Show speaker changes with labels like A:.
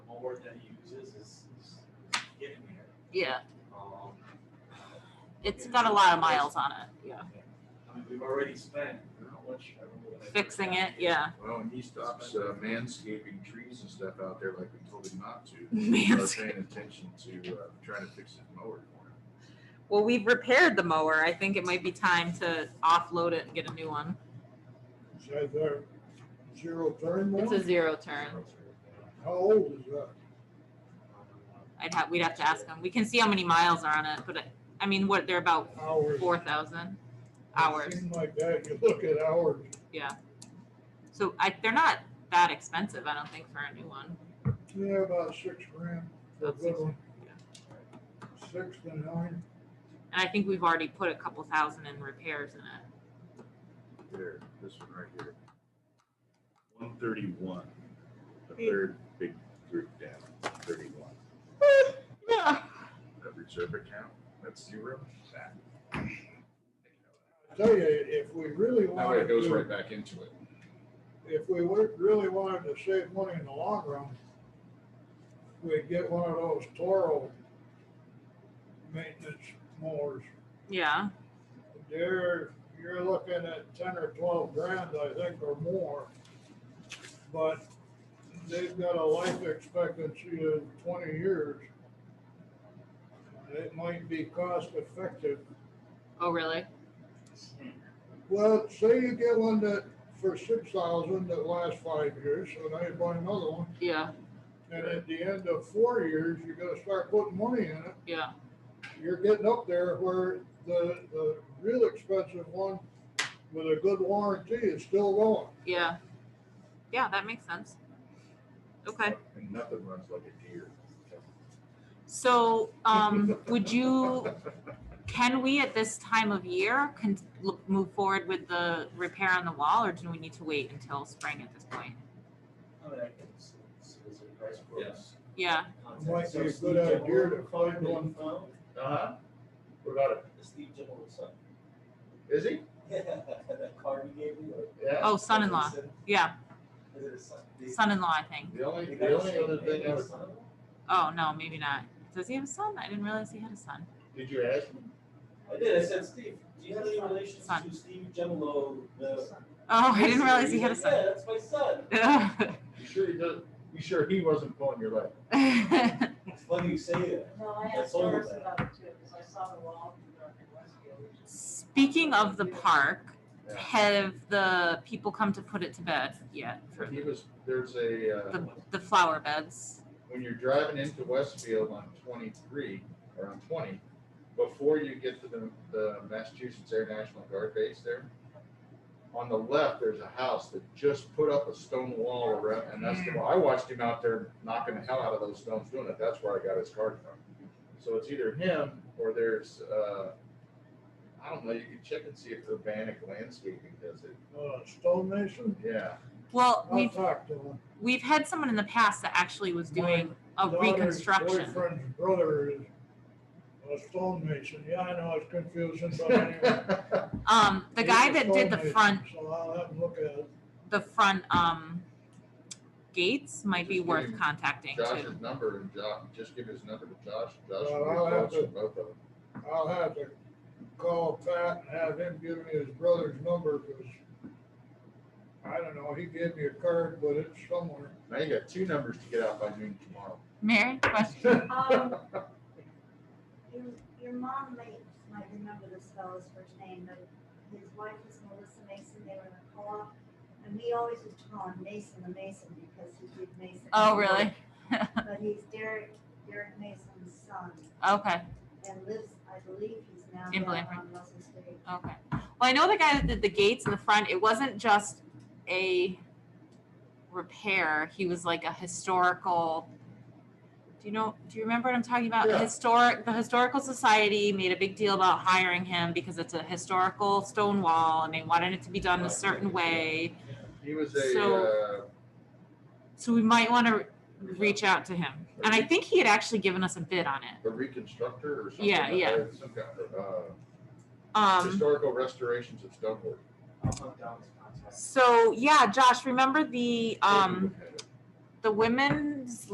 A: board that he uses is, is getting there.
B: Yeah,
A: Um,
B: it's got a lot of miles on it. Yeah.
A: I mean, we've already spent, how much, I don't know. what I-
B: Fixing it, yeah.
C: Well, and he stops uh, manscaping trees and stuff out there like we told him not to.
B: Mans-
C: Start Paying attention to, uh, trying to fix his mower.
B: Well, we've repaired the mower. I think it might be time to offload it and get a new one.
D: Is that their zero turn
B: It's a
D: one?
B: zero turn.
D: How old is that?
B: I'd have, we'd have to ask them. We can see how many miles are on it, but I- I mean, what, they're about
D: Hours?
B: four thousand hours.
D: Seems like that, you look at hours,
B: So I, they're not that expensive, I don't think, for a new one.
D: yeah, about six grand for a
B: About six,
D: good one,
B: yeah.
D: six to nine.
B: And I think we've already put a couple thousand in repairs in it.
C: There, this one right here. One thirty-one, the third big group down, thirty-one.
B: Yeah.
C: That reserve account, that's zero. That.
D: I Tell you, if we really
E: That way
D: wanted
E: it goes
D: to,
E: right back into it.
D: if we would- really wanted to save money in the long run, we'd get one of those Toro maintenance mowers.
B: Yeah,
D: You're, you're looking at ten or twelve grand, I think, or more. But they've got a life expectancy of twenty years. It might be cost effective.
B: oh, really?
A: Hmm.
D: Well, say you get one that, for six thousand, that lasts five years, so now you buy another one.
B: Yeah,
D: And at the end of four years, you gotta start putting money in it.
B: yeah,
D: You're getting up there where the, the real expensive one with a good warranty is still going.
B: yeah. Yeah, that makes sense. Okay,
C: And nothing runs like a deer.
B: so, um, would you, can we at this time of year, can look, move forward with the repair on the wall, or do we need to wait until spring at this point?
A: I mean, I can s- s- s- price quotes.
E: Yes.
B: Yeah,
A: Contact.
D: Might be a
A: So Steve
D: good idea
A: Gemmell-
D: to find one.
C: Uh-huh. What about it?
A: Steve Gemmel's son.
C: Is he?
A: That car he gave me.
C: Yeah.
B: oh, son-in-law, yeah,
A: Is it his son? They-
B: son-in-law, I think.
C: The only,
A: they
C: the
A: got
C: only
A: Shane
C: other thing I
A: Baker's
C: was,
A: son.
B: Oh, no, maybe not. Does he have a son? I didn't realize he had a son.
C: did you ask him?
A: I did, I said, Steve, do you have any relation
B: Son.
A: to Steve Gemolo, the?
B: Oh, I didn't realize he
A: He's
B: had a
A: like, Yeah, that's my son.
B: son.
C: You sure he does, you sure he wasn't pulling your leg?
A: It's funny you say that.
F: No, I
A: That's
F: asked
A: all
F: Doris
A: about it.
F: about it too, because I saw the wall from Dark and Westfield.
B: Speaking of the park,
C: Yeah.
B: have the people come to put it to bed yet? For
C: He was, there's a, uh,
B: the, the flower beds?
C: when you're driving into Westfield on twenty-three, or on twenty, before you get to the, the Massachusetts Air National Guard base there, on the left, there's a house that just put up a stone wall around, and that's the, I watched him out there knocking the hell out of those stones doing it, that's where I got his card from. So it's either him, or there's, uh, I don't know, you can check and see if Urbanic Landscaping does it,
D: Uh, stonemason,
C: yeah.
B: Well,
D: I'll
B: we've,
D: talk to him.
B: we've had someone in the past that actually was doing a
D: Daughter's
B: reconstruction.
D: Boyfriend's brother is a stonemason, yeah, I know, it's confusing, but anyway.
B: Um, the guy
D: He's a
B: that did the
D: stonemason,
B: front,
D: So I'll have him look at it.
B: the front, um, gates might be
C: Just
B: worth
C: giving
B: contacting too.
C: Josh's number and Josh, just give his number to Josh, Josh
D: Uh,
C: will
D: I'll have
C: get
D: to-
C: votes from both of them.
D: I'll have to call Pat and have him give me his brother's number, because I don't know, he gave me a card, but it's somewhere.
C: Now you got two numbers to get out by noon tomorrow.
B: Mary, question?
F: Um, Your, your mom might, might remember this fellow's first name, but his wife was Melissa Mason, they were in a co-op. And we always used to call him Mason the Mason because he did Mason.
B: Oh, really?
F: But he's Derek, Derek Mason's son
B: Okay,
F: and lives, I believe he's now
B: In
F: down
B: Blanford.
F: on Russell Street.
B: okay. Well, I know the guy that did the gates in the front, it wasn't just a repair, he was like a historical. Do you know, do you remember what I'm talking about?
C: Yeah.
B: Historic, the Historical Society made a big deal about hiring him because it's a historical stone wall and they wanted it to be done a certain way.
C: He was a,
B: So-
C: uh,
B: So we might want to reach out to him. And I think he had actually given us a bid on it.
C: a reconstructor or something.
B: Yeah,
C: like
B: yeah.
C: that, Some kind of, uh,
B: Um,
C: historical restorations of stonework.
A: I'll hunt down his contact.
B: um, so yeah, Josh, remember the, um, the women's